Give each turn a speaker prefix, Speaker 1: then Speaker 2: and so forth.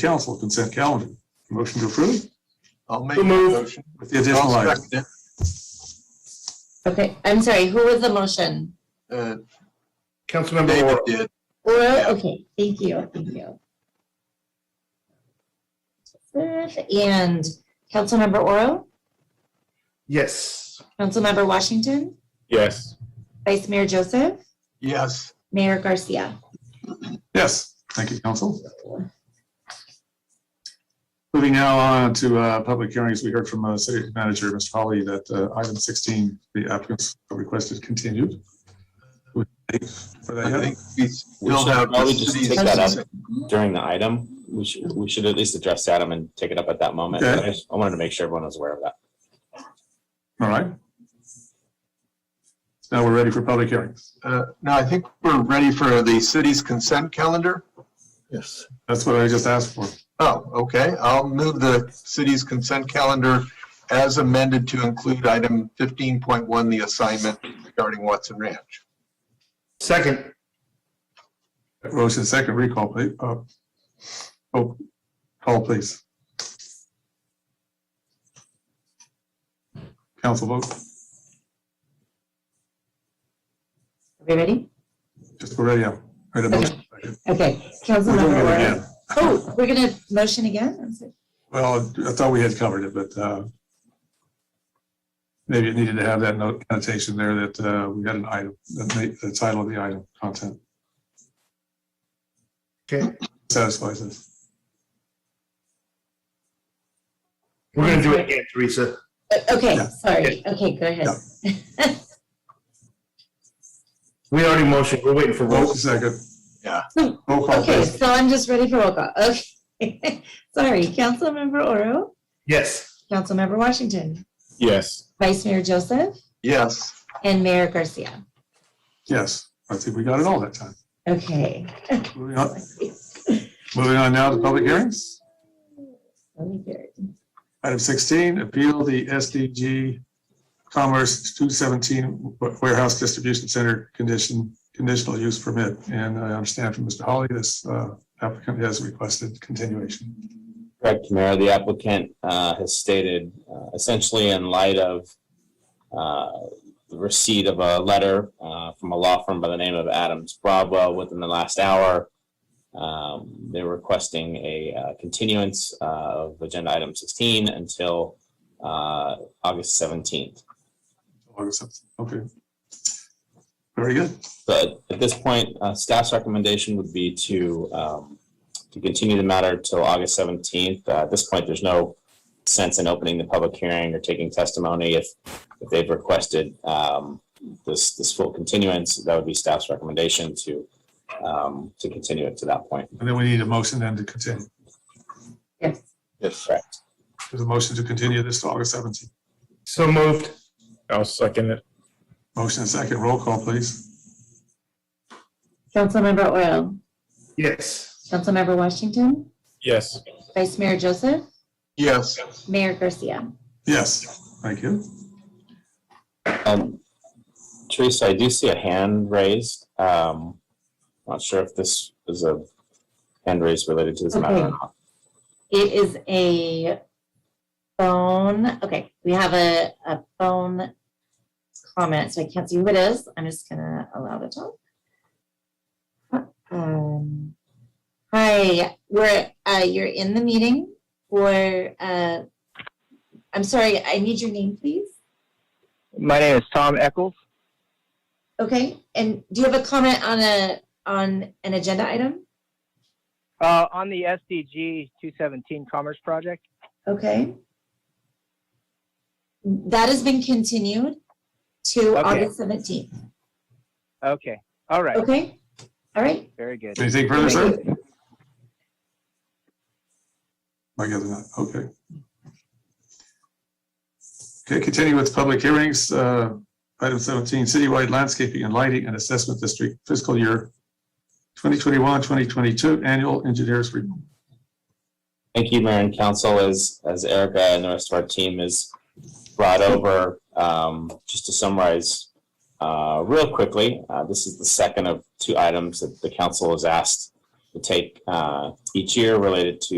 Speaker 1: council consent calendar. Motion to approve
Speaker 2: I'll make
Speaker 3: So
Speaker 2: the
Speaker 3: moved.
Speaker 2: motion.
Speaker 1: with the additional
Speaker 2: I'll
Speaker 1: item.
Speaker 2: second it.
Speaker 4: Okay, I'm sorry, who was the motion?
Speaker 2: Uh,
Speaker 3: Councilmember
Speaker 2: David
Speaker 3: Moore.
Speaker 2: did.
Speaker 4: Oral,
Speaker 2: Yeah.
Speaker 4: okay, thank you, thank you. And Councilmember Oro,
Speaker 3: Yes.
Speaker 4: Councilmember Washington,
Speaker 5: Yes,
Speaker 4: Vice Mayor Joseph,
Speaker 2: Yes,
Speaker 4: Mayor Garcia.
Speaker 1: Yes, thank you, council. Moving now on to uh, public hearings, we heard from uh, City Manager, Mr. Holly, that uh, item 16, the applicants requested continued. Would they- for that
Speaker 2: I
Speaker 1: yet?
Speaker 2: think we
Speaker 5: We
Speaker 2: filled
Speaker 5: should
Speaker 2: out.
Speaker 5: probably
Speaker 2: the
Speaker 5: just
Speaker 2: city's-
Speaker 5: take that out. during the item, we should, we should at least address the item and take it up at that moment.
Speaker 1: Okay.
Speaker 5: I just- I wanted to make sure everyone was aware of that.
Speaker 1: All right. Now we're ready for public hearings.
Speaker 2: Uh, No, I think we're ready for the city's consent calendar.
Speaker 6: Yes,
Speaker 1: That's what I just asked for.
Speaker 2: Oh, okay. I'll move the city's consent calendar as amended to include item 15.1, the assignment regarding Watson Ranch.
Speaker 3: Second.
Speaker 1: Motion second recall, please. Uh, Oh, call, please. Council vote,
Speaker 4: Everybody?
Speaker 1: just go right now. Right, a motion.
Speaker 4: Okay,
Speaker 1: We're doing
Speaker 4: Councilmember
Speaker 1: it
Speaker 4: Oro.
Speaker 1: again.
Speaker 4: Oh, we're gonna motion again? I'm sorry.
Speaker 1: Well, I thought we had covered it, but uh, maybe it needed to have that note annotation there that uh, we had an item, that ma- the title of the item, content
Speaker 3: Okay.
Speaker 1: satisfies us.
Speaker 3: We're going to do it again, Teresa.
Speaker 4: Uh, Okay,
Speaker 1: Yeah.
Speaker 4: sorry, okay, go ahead.
Speaker 3: We already motioned. We're waiting for roll.
Speaker 1: Motion second.
Speaker 2: Yeah.
Speaker 1: Roll call,
Speaker 4: Okay,
Speaker 1: please.
Speaker 4: so I'm just ready for roll call, okay. Sorry, Councilmember Oro,
Speaker 3: Yes.
Speaker 4: Councilmember Washington,
Speaker 5: Yes,
Speaker 4: Vice Mayor Joseph,
Speaker 2: Yes.
Speaker 4: and Mayor Garcia.
Speaker 1: Yes, I think we got it all that time.
Speaker 4: Okay.
Speaker 1: Moving on- moving on now to public hearings.
Speaker 4: Let me hear it.
Speaker 1: Item 16, appeal the SDG Commerce 217 Warehouse Distribution Center condition, conditional use permit. And I understand from Mr. Holly, this uh, applicant has requested continuation.
Speaker 5: correct, Mayor. The applicant uh, has stated uh, essentially in light of uh, the receipt of a letter uh, from a law firm by the name of Adams Bravo within the last hour. Um, They're requesting a uh, continuance uh, of agenda item 16 until uh, August 17th.
Speaker 1: August 17th. Okay. Very good.
Speaker 5: But at this point, uh, staff's recommendation would be to, um, to continue the matter till August seventeenth. Uh, at this point, there's no sense in opening the public hearing or taking testimony if, if they've requested, um, this, this full continuance, that would be staff's recommendation to, um, to continue it to that point.
Speaker 1: And then we need a motion then to continue.
Speaker 4: Yes.
Speaker 6: yes,
Speaker 5: Correct.
Speaker 1: There's a motion to continue this to August 17th.
Speaker 3: So moved.
Speaker 6: I'll second it.
Speaker 1: Motion and second. Roll call, please.
Speaker 4: Councilmember Oil,
Speaker 3: Yes.
Speaker 4: Councilmember Washington,
Speaker 6: Yes,
Speaker 4: Vice Mayor Joseph,
Speaker 2: Yes.
Speaker 4: Mayor Garcia.
Speaker 1: Yes. Thank you.
Speaker 5: Um, Teresa, I do see a hand raised. Um, not sure if this is a hand raised related to this matter or
Speaker 4: Okay.
Speaker 5: not.
Speaker 4: It is a phone, okay, we have a, a phone comment, so I can't see who it is. I'm just gonna allow the talk. Um, Hi, we're, uh, you're in the meeting for, uh, I'm sorry, I need your name, please.
Speaker 7: My name is Tom Eccles.
Speaker 4: Okay, and do you have a comment on a, on an agenda item?
Speaker 7: Uh, on the SDG 217 Commerce Project,
Speaker 4: Okay. That has been continued to
Speaker 7: Okay.
Speaker 4: August seventeenth,
Speaker 7: okay, all right,
Speaker 4: okay? All right,
Speaker 7: very good.
Speaker 1: Anything further, sir? I guess not, okay. Okay, continue with public hearings. Uh, Item 17, citywide landscaping and lighting and assessment district fiscal year 2021, 2022 annual engineers report.
Speaker 5: Thank you, Mayor and Council, as, as Erica and the rest of our team has brought over. Um, just to summarize, uh, real quickly, uh, this is the second of two items that the council is asked to take, uh, each year related to